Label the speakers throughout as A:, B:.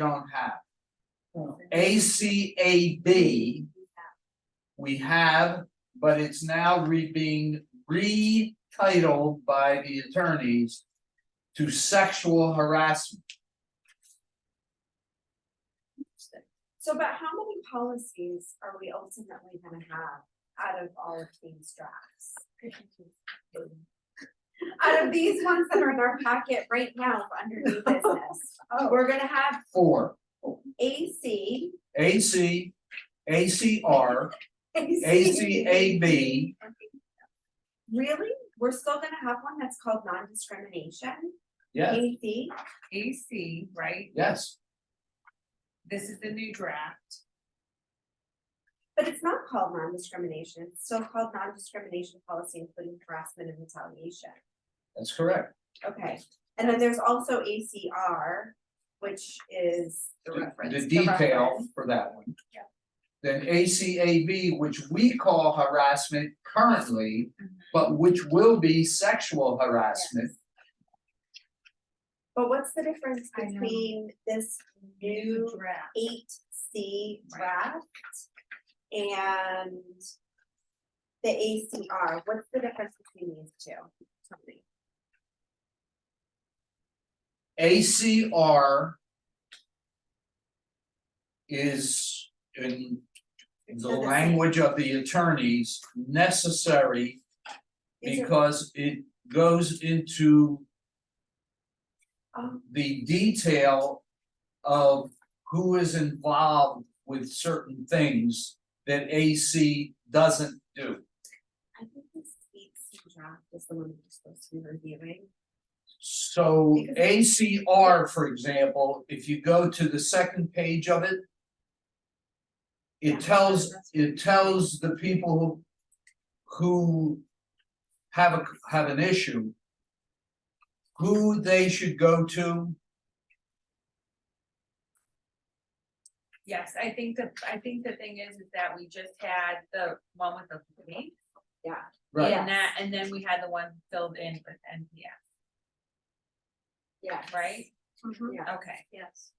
A: don't have. A C A B. We have, but it's now re being retitled by the attorneys. To sexual harassment,
B: So, but how many policies are we ultimately gonna have out of all of these drafts? Out of these ones that are in our packet right now under new business,
A: Oh.
B: we're gonna have
A: four,
B: A C.
A: A C, A C R, A C A B.
B: Really? We're still gonna have one that's called non-discrimination,
A: Yes,
B: A C,
C: AC, right?
A: yes,
C: This is the new draft.
B: but it's not called non-discrimination, it's still called non-discrimination policy, including harassment and retaliation.
A: that's correct.
B: Okay, and then there's also ACR, which is the reference.
A: The detail
B: reference.
A: for that one.
B: Yeah.
A: Then A C A B, which we call harassment currently,
B: Mm-hmm.
A: but which will be sexual harassment.
B: But what's the difference
C: I know.
B: between this new
C: draft.
B: eight C
C: Right.
B: draft and the ACR? What's the difference between these two? Tell me.
A: ACR is in the
B: They're the same.
A: language of the attorneys necessary
B: These are-
A: because it goes into
B: oh,
A: the detail of who is involved with certain things that AC doesn't do.
B: I think this eight C draft is the one that we're supposed to be reviewing.
A: So
B: Because-
A: ACR, for example, if you go to the second page of it.
B: Yeah.
A: It tells, it tells the people who. Who. Have a, have an issue. Who they should go to,
C: Yes, I think the, I think the thing is, is that we just had the one with the police.
A: right,
B: Yeah.
C: And that, and then we had the one filled in with NPS,
B: Yeah.
C: right?
B: Yeah.
C: Okay,
D: Yes,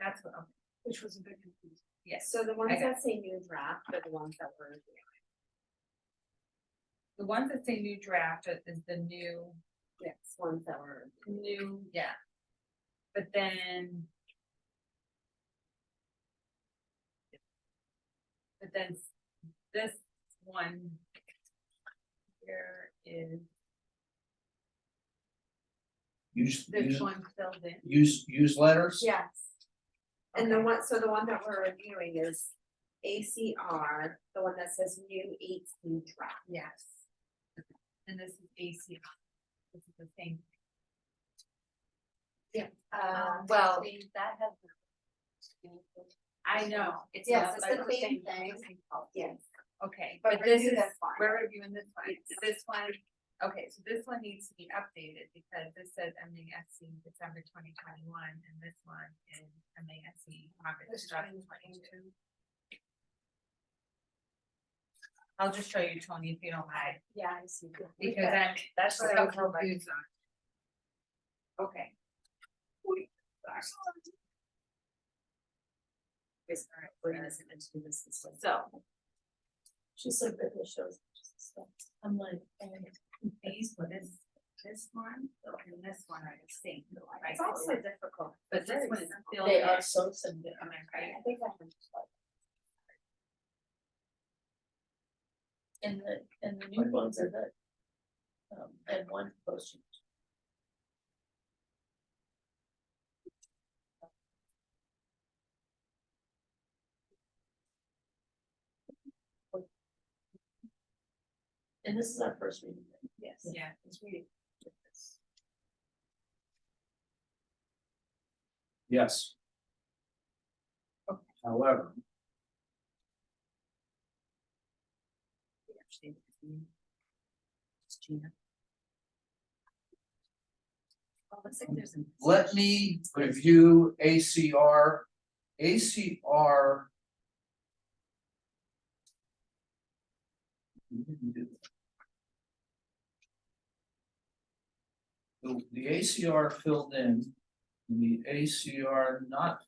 C: that's what, okay,
D: which was a bit confusing.
C: yes.
B: So the ones
C: Okay.
B: that say new draft are the ones that were.
C: The ones that say new draft is- is the new,
B: Yes, ones that were.
C: new, yeah. But then. But then s- this one. Here is
A: use,
C: this
A: use,
C: one filled in.
A: use, use letters?
B: Yes. And the
C: Okay.
B: one, so the one that we're reviewing is ACR, the one that says new eighteen draft.
C: Yes. And this is AC. This is the same. Um,
B: Uh,
D: well.
C: That has. I know. It's
D: Yes,
C: not
D: it's
C: like
D: the same thing.
B: yes,
C: Okay,
B: But
C: but this
B: review
C: is,
B: this one.
C: we're reviewing this one. This one, okay, so this one needs to be updated because this says ending SC December twenty twenty one and this one is ending SC August twenty twenty two. I'll just show you, Tony, if you don't mind,
D: Yeah, I see.
C: because I'm, that's what I was
D: Okay.
C: confused on. Okay.
D: Yes, all right, We're gonna send it to this this way.
C: So,
D: She said that it shows. I'm like, "Oh, and
C: these, well, this, this one, and this one are the same, right?
B: it's also difficult.
C: But this one is filled
D: they
C: in,
D: are so similar.
C: am I right?
B: I think I have.
D: And the, and the new ones are the. Um, and one motion. And this is our first reading. Yes.
C: Yeah.
D: It's reading.
A: Yes. However. Let me review ACR, ACR. The, the ACR filled in, and the ACR not